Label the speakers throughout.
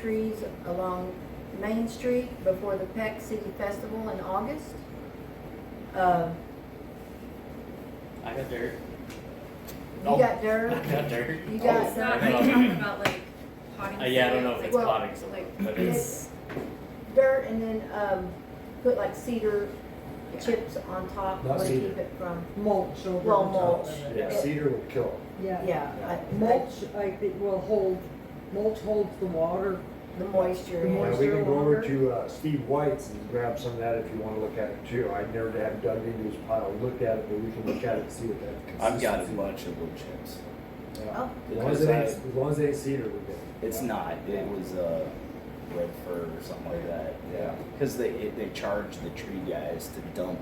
Speaker 1: trees along Main Street before the Peck City Festival in August. Uh,
Speaker 2: I got dirt.
Speaker 1: You
Speaker 2: Oh.
Speaker 1: got
Speaker 2: I
Speaker 1: dirt,
Speaker 2: got dirt.
Speaker 1: you
Speaker 3: It's
Speaker 1: got
Speaker 3: not,
Speaker 1: dirt.
Speaker 3: are you talking about like potting?
Speaker 2: Uh, yeah, I don't know if
Speaker 3: soil?
Speaker 2: it's
Speaker 1: Well,
Speaker 2: potting soil, but it's,
Speaker 1: dirt and then, um, put like cedar
Speaker 3: Yeah.
Speaker 1: chips on top
Speaker 4: Not
Speaker 1: to
Speaker 4: cedar.
Speaker 1: keep it from,
Speaker 5: mulch over
Speaker 1: Well,
Speaker 5: the top
Speaker 1: mulch.
Speaker 5: of it.
Speaker 2: Yeah.
Speaker 4: Yeah, cedar would kill
Speaker 5: Yeah,
Speaker 1: yeah, I-
Speaker 5: mulch, like, it will hold, mulch holds the water.
Speaker 1: the moisture.
Speaker 5: The
Speaker 4: them.
Speaker 1: in.
Speaker 4: Now,
Speaker 5: moisture
Speaker 4: we can go over
Speaker 5: longer.
Speaker 4: to uh, Steve White's and grab some of that if you want to look at it too. I never have dug into his pile, looked at it, but we can look at it and see what that.
Speaker 6: I've got a
Speaker 4: consistency-
Speaker 6: bunch of wood chips.
Speaker 4: Yeah.
Speaker 1: Oh.
Speaker 4: As long as it ain't, as long as it ain't cedar, we're good.
Speaker 6: It's
Speaker 4: Yeah.
Speaker 6: not. It was uh, red fir or something like that.
Speaker 4: Yeah.
Speaker 6: Because they it, they charge the tree guys to dump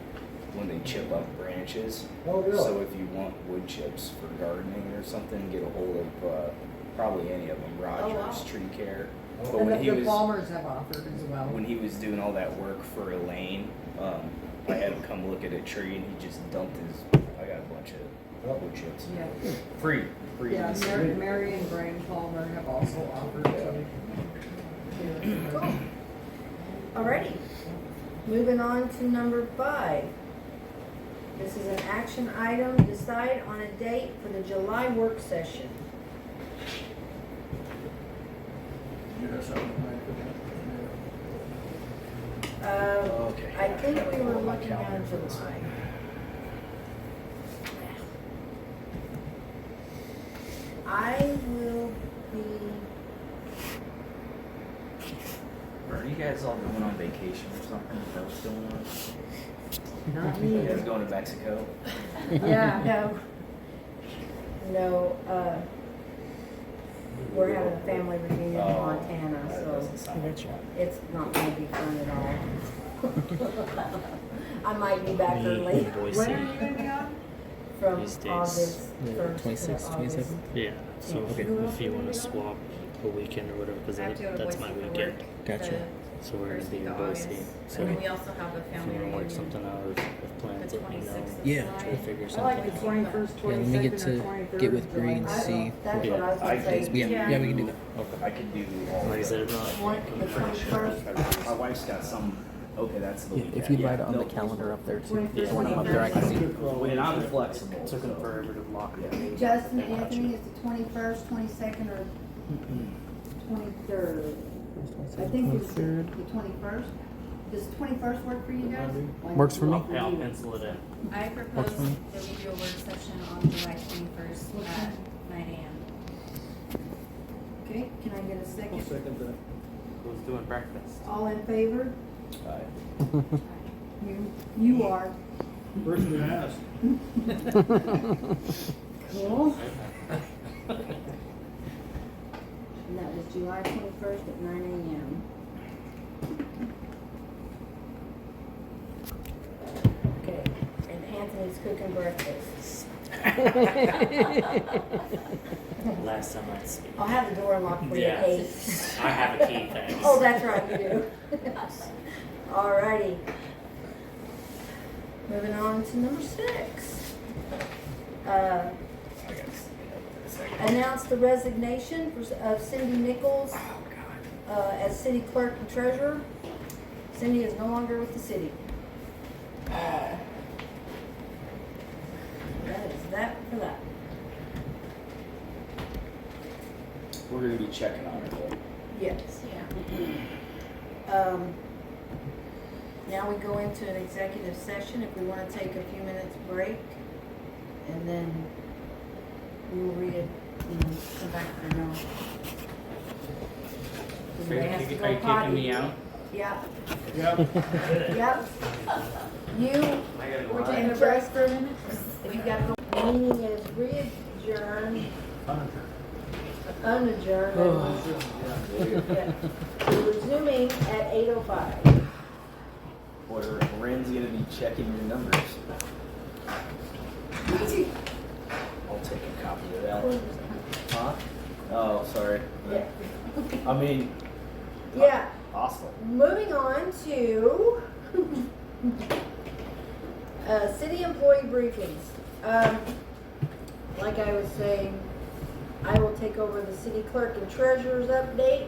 Speaker 6: when they chip up branches.
Speaker 4: Oh,
Speaker 6: So
Speaker 4: really?
Speaker 6: if you want wood chips for gardening or something, get a hold of uh, probably any of them. Rogers Tree Care.
Speaker 4: Oh.
Speaker 6: But
Speaker 5: And
Speaker 6: when he
Speaker 5: the- the
Speaker 6: was
Speaker 5: farmers have offered as well.
Speaker 6: when he was doing all that work for Elaine, um, I had him come look at a tree and he just dumped his. I got a bunch
Speaker 4: Oh.
Speaker 6: of wood chips.
Speaker 5: Yeah,
Speaker 6: Free. Free.
Speaker 5: yeah,
Speaker 6: Just-
Speaker 5: Mary, Mary and Brian Palmer have also offered to.
Speaker 1: Cool. Alrighty, moving on to number five. This is an action item, decide on a date for the July work session. Um,
Speaker 6: Okay.
Speaker 1: I think we were
Speaker 6: Pull up my
Speaker 1: looking
Speaker 6: calendar
Speaker 1: at
Speaker 6: for this
Speaker 1: July. I will be,
Speaker 7: Are you guys all going on vacation or something? Is that what's going on?
Speaker 5: Not
Speaker 6: You
Speaker 5: me.
Speaker 6: guys going to Mexico?
Speaker 5: Yeah,
Speaker 1: no, no, uh, we're having a family reunion in
Speaker 6: Oh,
Speaker 1: Montana,
Speaker 6: That
Speaker 1: so
Speaker 6: doesn't sound like fun.
Speaker 1: it's not gonna be fun at all. I might be back
Speaker 2: me
Speaker 1: early
Speaker 2: and Boise.
Speaker 5: when are you gonna be on?
Speaker 1: from
Speaker 2: These
Speaker 1: August
Speaker 2: days.
Speaker 1: first
Speaker 8: The
Speaker 1: to August.
Speaker 8: 26th, 27th?
Speaker 2: Yeah, so
Speaker 1: Okay.
Speaker 2: if you wanna swap a weekend or whatever, cause
Speaker 3: I have
Speaker 2: that,
Speaker 3: to go to
Speaker 2: that's my
Speaker 3: Boise for
Speaker 2: weekend.
Speaker 3: work
Speaker 8: Gotcha.
Speaker 3: the
Speaker 2: So we're gonna
Speaker 3: first
Speaker 2: be
Speaker 3: week
Speaker 2: in
Speaker 3: of
Speaker 2: Boise,
Speaker 3: August.
Speaker 2: so
Speaker 3: And then
Speaker 2: if
Speaker 3: we also have a
Speaker 2: you
Speaker 3: family
Speaker 2: wanna work
Speaker 3: reunion
Speaker 2: something out or if plans,
Speaker 3: the
Speaker 2: let me know.
Speaker 3: 26th of
Speaker 8: Yeah,
Speaker 3: July.
Speaker 8: try to
Speaker 5: I
Speaker 8: figure something
Speaker 5: like
Speaker 8: out.
Speaker 5: the twenty-first,
Speaker 8: Yeah, let me get
Speaker 5: twenty-second, or
Speaker 8: to
Speaker 5: twenty-third.
Speaker 8: get with Bree and
Speaker 1: I
Speaker 8: see.
Speaker 1: don't, that's
Speaker 2: Yeah,
Speaker 1: what I was
Speaker 6: I
Speaker 1: gonna say.
Speaker 6: think-
Speaker 8: Yeah,
Speaker 3: Yeah.
Speaker 8: yeah, we can do that. Okay.
Speaker 6: I could do all
Speaker 2: Like I
Speaker 6: the-
Speaker 2: said, I'm not-
Speaker 1: One- the twenty-first.
Speaker 6: My wife's got some. Okay, that's the
Speaker 8: Yeah,
Speaker 6: weekend.
Speaker 8: if you'd write it on the
Speaker 6: no,
Speaker 8: calendar up there too,
Speaker 1: Twenty-first,
Speaker 8: just want them up there, I can see.
Speaker 6: And I'm flexible.
Speaker 2: Took
Speaker 6: so-
Speaker 2: them forever to lock it. in.
Speaker 1: Justin,
Speaker 2: Gotcha.
Speaker 1: Anthony, is the twenty-first, twenty-second, or twenty-third? I think it's the
Speaker 8: 23rd.
Speaker 1: twenty-first. Does the twenty-first work for you guys?
Speaker 8: Works for me.
Speaker 2: Yeah, I'll pencil it in.
Speaker 3: I propose
Speaker 8: for me.
Speaker 3: that we do a work session on July twenty-first at nine AM.
Speaker 1: Okay, can I get a second?
Speaker 2: Who's doing breakfast?
Speaker 1: All in favor?
Speaker 6: Aye.
Speaker 1: You, you are. Cool. And that was July twenty-first at nine AM. Okay, and Anthony's cooking breakfast.
Speaker 2: Last time I see.
Speaker 1: I'll have the door unlocked for you
Speaker 2: Yeah.
Speaker 1: at eight.
Speaker 2: I have a key, thanks.
Speaker 1: Oh, that's right, you do. Alrighty. Moving on to number six. Uh,
Speaker 6: I got s- a second.
Speaker 1: announce the resignation for- of Cindy Nichols
Speaker 6: Oh, God.
Speaker 1: uh, as city clerk and treasurer. Cindy is no longer with the city. Uh, That is that for that.
Speaker 6: We're gonna be checking on it. though.
Speaker 1: Yes.
Speaker 3: Yeah.
Speaker 1: Um, now we go into an executive session if we wanna take a few minutes break. And then we'll read it, you know, come back for now.
Speaker 2: Are you
Speaker 1: Everybody has to
Speaker 2: kick-
Speaker 1: go
Speaker 2: are you kicking
Speaker 1: potty.
Speaker 2: me out?
Speaker 1: Yeah,
Speaker 4: Yep.
Speaker 1: yep. You,
Speaker 2: I gotta go
Speaker 1: we're
Speaker 2: out.
Speaker 1: taking a break for a minute. If you got the meeting is readjourned. Unadjourned. Yeah. We're resuming at eight oh five.
Speaker 6: Or Ren's gonna be checking your numbers. I'll take a copy of that. Huh? Oh, sorry.
Speaker 1: Yeah.
Speaker 6: I mean,
Speaker 1: Yeah,
Speaker 6: awesome.
Speaker 1: moving on to uh, city employee briefings. Um, like I was saying, I will take over the city clerk and treasurer's update.